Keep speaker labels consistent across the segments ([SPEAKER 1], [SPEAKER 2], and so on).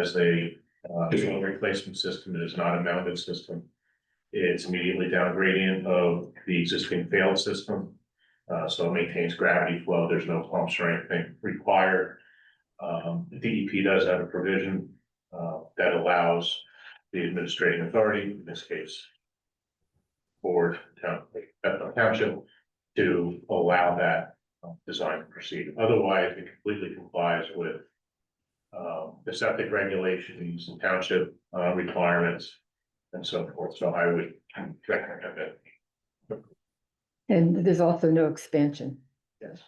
[SPEAKER 1] as a uh, annual replacement system, it is not a mounted system. It's immediately down gradient of the existing failed system. Uh, so it maintains gravity flow, there's no pumps or anything required. Um, the DEP does have a provision, uh, that allows the administrative authority, in this case. Board, town, Putnam township, to allow that uh, design to proceed, otherwise it completely complies with. Um, the septic regulations, and township uh requirements and so forth, so I would recommend it.
[SPEAKER 2] And there's also no expansion,
[SPEAKER 1] Yes.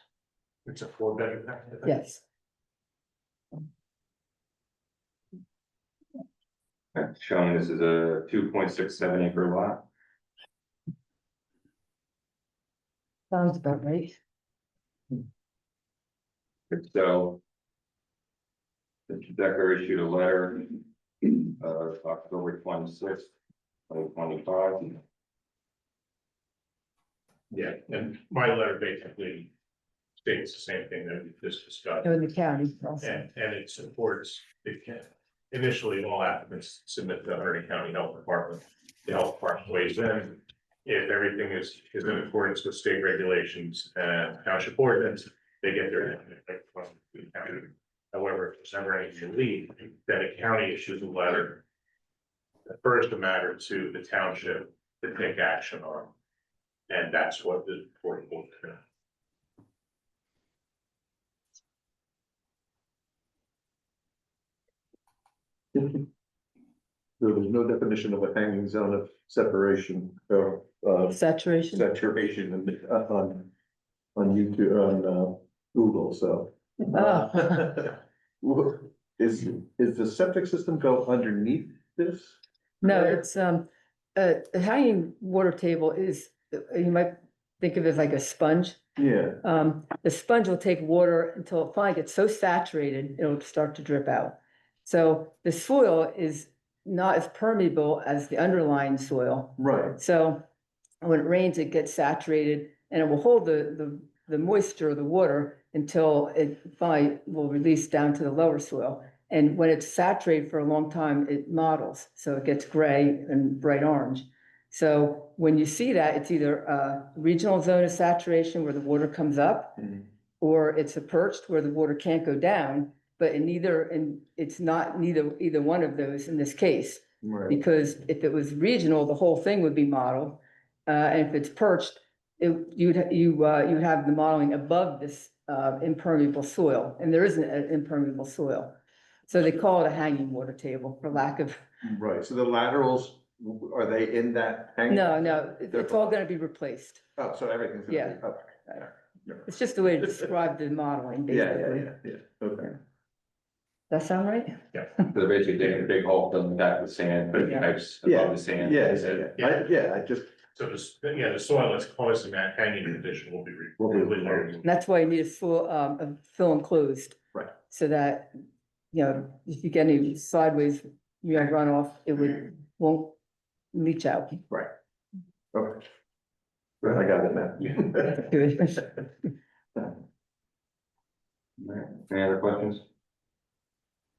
[SPEAKER 1] It's a four bedroom.
[SPEAKER 2] yes.
[SPEAKER 3] That's showing this is a two point six seven acre lot.
[SPEAKER 2] Sounds about right.
[SPEAKER 3] So. Mr. Decker issued a letter of October twenty sixth, twenty twenty five.
[SPEAKER 1] Yeah, and my letter basically states the same thing that we just discussed.
[SPEAKER 2] In the county also.
[SPEAKER 1] And, and it supports, it can, initially, all applicants submit to the Harding County Health Department. The health department weighs in, if everything is, is in accordance with state regulations and township ordinance, they get their. However, if there's ever any lead, then a county issues a letter. First, a matter to the township to take action on. And that's what the board will do.
[SPEAKER 4] There was no definition of a hanging zone of separation or uh
[SPEAKER 2] Saturation,
[SPEAKER 4] saturation in the- uh, on. On YouTube, on uh Google, so.
[SPEAKER 2] Ah.
[SPEAKER 4] Wha- Is is the septic system go underneath this?
[SPEAKER 2] no, it's, um, a a hanging water table is, uh, you might think of it as like a sponge.
[SPEAKER 4] Yeah,
[SPEAKER 2] Um, the sponge will take water until it finally gets so saturated, it'll start to drip out. So the soil is not as permeable as the underlying soil.
[SPEAKER 4] right,
[SPEAKER 2] So when it rains, it gets saturated and it will hold the, the, the moisture of the water until it finally will release down to the lower soil. And when it's saturated for a long time, it models, so it gets gray and bright orange. So when you see that, it's either a regional zone of saturation where the water comes up
[SPEAKER 4] Mhm.
[SPEAKER 2] or it's a perched where the water can't go down, but in neither, and it's not neither, either one of those in this case.
[SPEAKER 4] right.
[SPEAKER 2] Because if it was regional, the whole thing would be modeled. Uh, and if it's perched, it, you'd, you, uh, you have the modeling above this, uh, impermeable soil, and there isn't an impermeable soil. So they call it a hanging water table for lack of,
[SPEAKER 4] Right, so the laterals, w- are they in that? hanging-
[SPEAKER 2] no, no, it- it's all gonna be replaced.
[SPEAKER 4] Oh, so everything's. gonna be- okay.
[SPEAKER 2] It's just a way to describe the modeling,
[SPEAKER 4] Yeah, yeah,
[SPEAKER 2] basically.
[SPEAKER 4] yeah, yeah, okay.
[SPEAKER 2] That sound right?
[SPEAKER 3] They're basically digging a big hole, filling that with sand, putting
[SPEAKER 2] Yeah.
[SPEAKER 3] pipes
[SPEAKER 4] Yeah,
[SPEAKER 3] above the sand.
[SPEAKER 4] Yeah,
[SPEAKER 3] That's it.
[SPEAKER 4] yeah, yeah, I- yeah, I just,
[SPEAKER 1] So this, yeah, the soil that's causing that hanging condition will be. re-
[SPEAKER 4] Will be removed.
[SPEAKER 2] And that's why you need a full, um, a fill enclosed.
[SPEAKER 4] Right.
[SPEAKER 2] So that, you know, if you get any sideways, you know, runoff, it
[SPEAKER 4] Mm.
[SPEAKER 2] would, won't leach out.
[SPEAKER 4] okay. Right, I got it now.
[SPEAKER 2] Good.
[SPEAKER 3] Alright, Any other questions?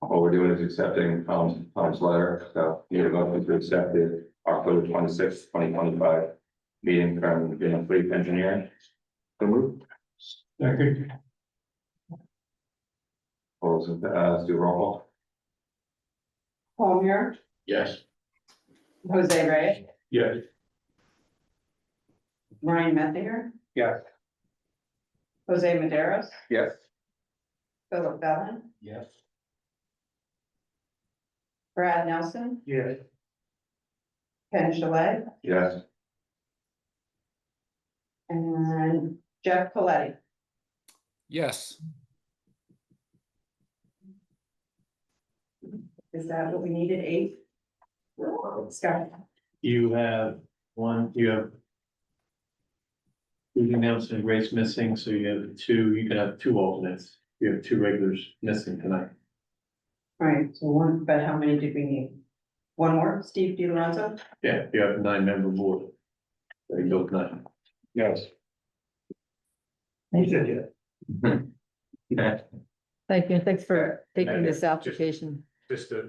[SPEAKER 3] All we're doing is accepting Tom's, Tom's letter, so you have a motion to accept the October twenty sixth, twenty twenty five. Meeting from Van Fleet Engineering. So move. Second. Those, uh, let's do roll call.
[SPEAKER 5] Palmier,
[SPEAKER 1] Yes.
[SPEAKER 5] Jose Ray,
[SPEAKER 1] Yes.
[SPEAKER 5] Ryan Methinger.
[SPEAKER 3] Yes.
[SPEAKER 5] Jose Maderos,
[SPEAKER 3] Yes.
[SPEAKER 5] Philip Bellin,
[SPEAKER 3] Yes.
[SPEAKER 5] Brad Nelson,
[SPEAKER 1] Yes.
[SPEAKER 5] Ken Shalay,
[SPEAKER 3] Yes.
[SPEAKER 5] and Jeff Coletti.
[SPEAKER 6] Yes,
[SPEAKER 5] Is that what we needed, eight? Scott,
[SPEAKER 7] You have one, you have. You announced and Grace missing, so you have two, you can have two alternates, you have two regulars missing tonight.
[SPEAKER 5] right, so one, but how many did we need? One more, Steve DiLorenzo,
[SPEAKER 7] Yeah, you have a nine member board. There you go, nine.
[SPEAKER 3] Yes.
[SPEAKER 2] Thank you, and thanks for taking
[SPEAKER 1] Okay.
[SPEAKER 2] this application.
[SPEAKER 1] Just to